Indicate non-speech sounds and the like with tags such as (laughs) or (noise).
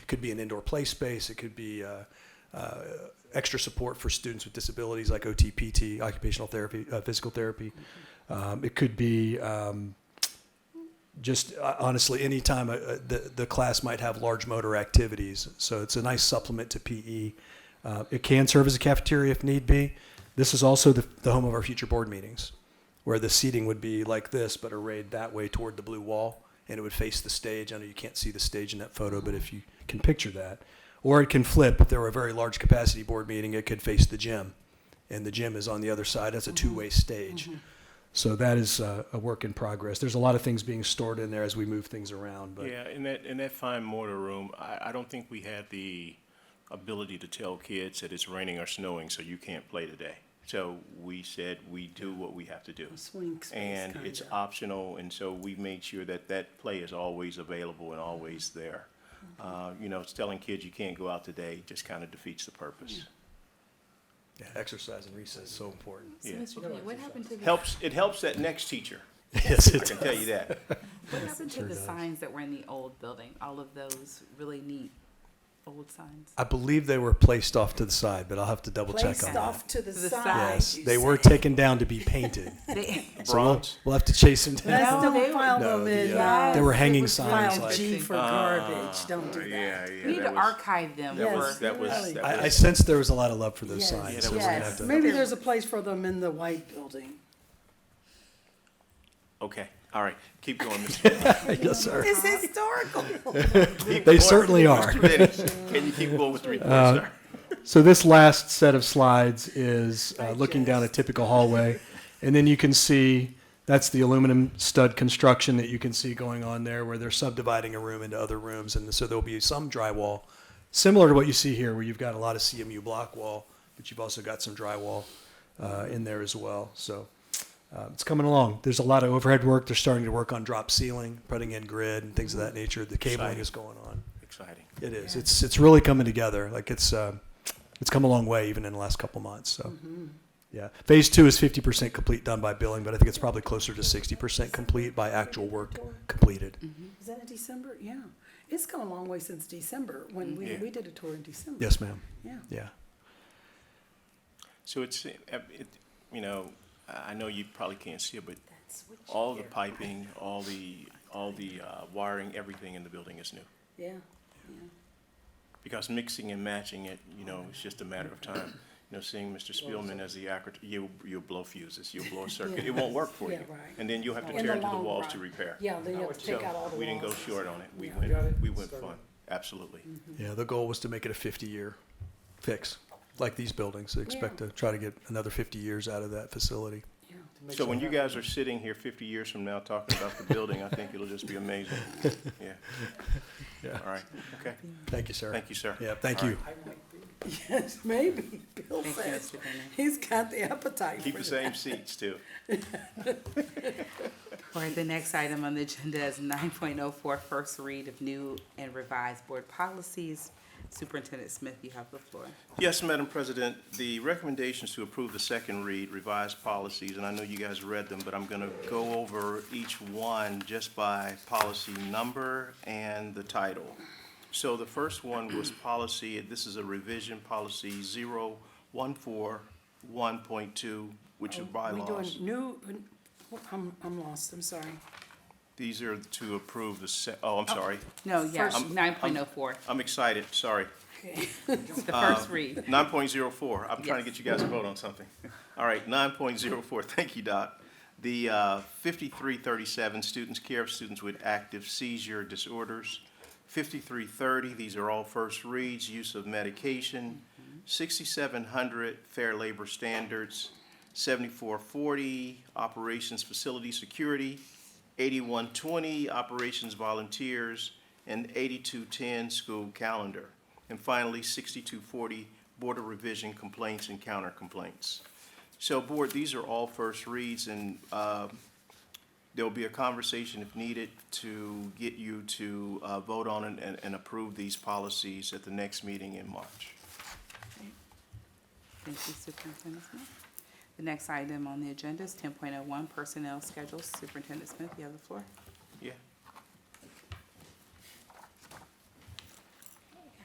could be an indoor play space. It could be uh, uh, extra support for students with disabilities like OTPT, occupational therapy, uh, physical therapy. Um, it could be um, just uh, honestly any time uh, uh, the the class might have large motor activities. So it's a nice supplement to PE. Uh, it can serve as a cafeteria if need be. This is also the, the home of our future board meetings, where the seating would be like this, but arrayed that way toward the blue wall, and it would face the stage. I know you can't see the stage in that photo, but if you can picture that, or it can flip. If there were a very large capacity board meeting, it could face the gym, and the gym is on the other side. That's a two way stage. So that is uh, a work in progress. There's a lot of things being stored in there as we move things around, but Yeah, in that, in that fine mortar room, I, I don't think we had the ability to tell kids that it's raining or snowing, so you can't play today. So we said, we do what we have to do. swing space, And it's kinda. optional, and so we made sure that that play is always available and always there. Mm-hmm. Uh, you know, it's telling kids you can't go out today just kind of defeats the purpose. yeah, exercise and recess is so important. So, Yeah. Mr. Bennett, what happened to the, what Helps, it helps that next teacher, (laughs) Yes, I it can tell (laughs) you that. happened to the signs that were in the old building? All of those really neat (laughs) old signs? I believe they were placed off to the side, but I'll have to double Placed check on off that. to the The side. side. Yes, you they were say. taken down to be (laughs) painted. They- So we'll- Bronze. We'll have to chase them down. Let's No, don't they file were- them No, in. yeah. uh, There were hanging signs File like- G for garbage, don't do Yeah, that. yeah. We need to that was- archive them That Yes, was, (laughs) for, that was, really. that I, I was. sensed there was a lot of love for those Yes, signs. so we're gonna have Yes, to- (laughs) maybe there's a place for them in the white building. Okay, all right, keep going, Mr. Yes, sir. It's historical. They Keep going. certainly are. Uh, Mr. Bennett, Can you keep going with (laughs) the report, sir? So this last set of slides is uh, looking down a typical hallway, and then you can see that's the aluminum stud construction that you can see going on there, where they're subdividing a room into other rooms, and so there'll be some drywall, similar to what you see here, where you've got a lot of CMU block wall, but you've also got some drywall uh, in there as well. So uh, it's coming along. There's a lot of overhead work. They're starting to work on drop ceiling, putting in grid and things of that nature. The cabling is going on. Exciting. It is. It's it's really coming together. Like it's uh, it's come a long way even in the last couple months. So yeah, phase two is fifty percent complete done by billing, but I think it's probably closer to sixty percent complete by actual work completed. Is that in December? Yeah. It's come a long way since December, when we, Yeah. we did a tour in December. Yes, ma'am. Yeah. Yeah. So it's, uh, it, you know, I I know you probably can't see it, but all the piping, all the, all the uh, wiring, everything in the building is new. Yeah. Because mixing and matching it, you know, it's just a matter of time. You know, seeing Mr. Spielman as the accurate, you, you'll blow fuses, you'll (laughs) blow a circuit, it won't work for Yeah, you. right. And then you'll have to In tear the into the long walls to run. repair. Yeah, then you have to So take out all the walls. we didn't go short on it. We Yeah. went, we went fun, absolutely. Mm-hmm. Yeah. The goal was to make it a fifty-year fix, like these buildings. They expect to try to get another fifty years out of that facility. Yeah. So when you guys are sitting here fifty years from now talking about the building, I think it'll just be (laughs) amazing. Yeah. Yeah. All right, okay. Thank you, sir. Thank you, sir. Yeah. Thank All you. Yes, (laughs) maybe. Bill Thank you, says Mr. Bennett. he's got the appetite Keep for the same that. seats too. for the next item on the agenda is 9.04, first read of new and revised board policies. Superintendent Smith, you have the floor. Yes, Madam President, the recommendations to approve the second read revised policies, and I know you guys read them, but I'm going to go over each one just by policy number and the title. So the first one was policy, this is a revision, policy 0141.2, which is Oh, We bylaws. doing new, I'm, I'm lost, I'm sorry. These are to approve the se, oh, I'm sorry. No, yeah, First- I'm- 9.04, I'm excited, sorry. Okay. it's the first read. Nine point zero four, I'm trying to Yes. get you guys to vote on something. All right, nine point zero four, thank you, Doc. The uh, fifty-three thirty-seven, students, care of students with active seizure disorders. Fifty-three thirty, these are all first reads, use of medication. Sixty-seven hundred, fair labor standards. Seventy-four forty, operations facility security. Eighty-one twenty, operations volunteers. And eighty-two ten, school calendar. And finally, sixty-two forty, Board of Revision complaints and counter complaints. So, Board, these are all first reads, and uh, there'll be a conversation if needed to get you to uh, vote on and- and and approve these policies at the next meeting in March. Thank you, Superintendent Smith. oh The next item on the agenda is 10.01, personnel schedules. Superintendent Smith, you have the floor.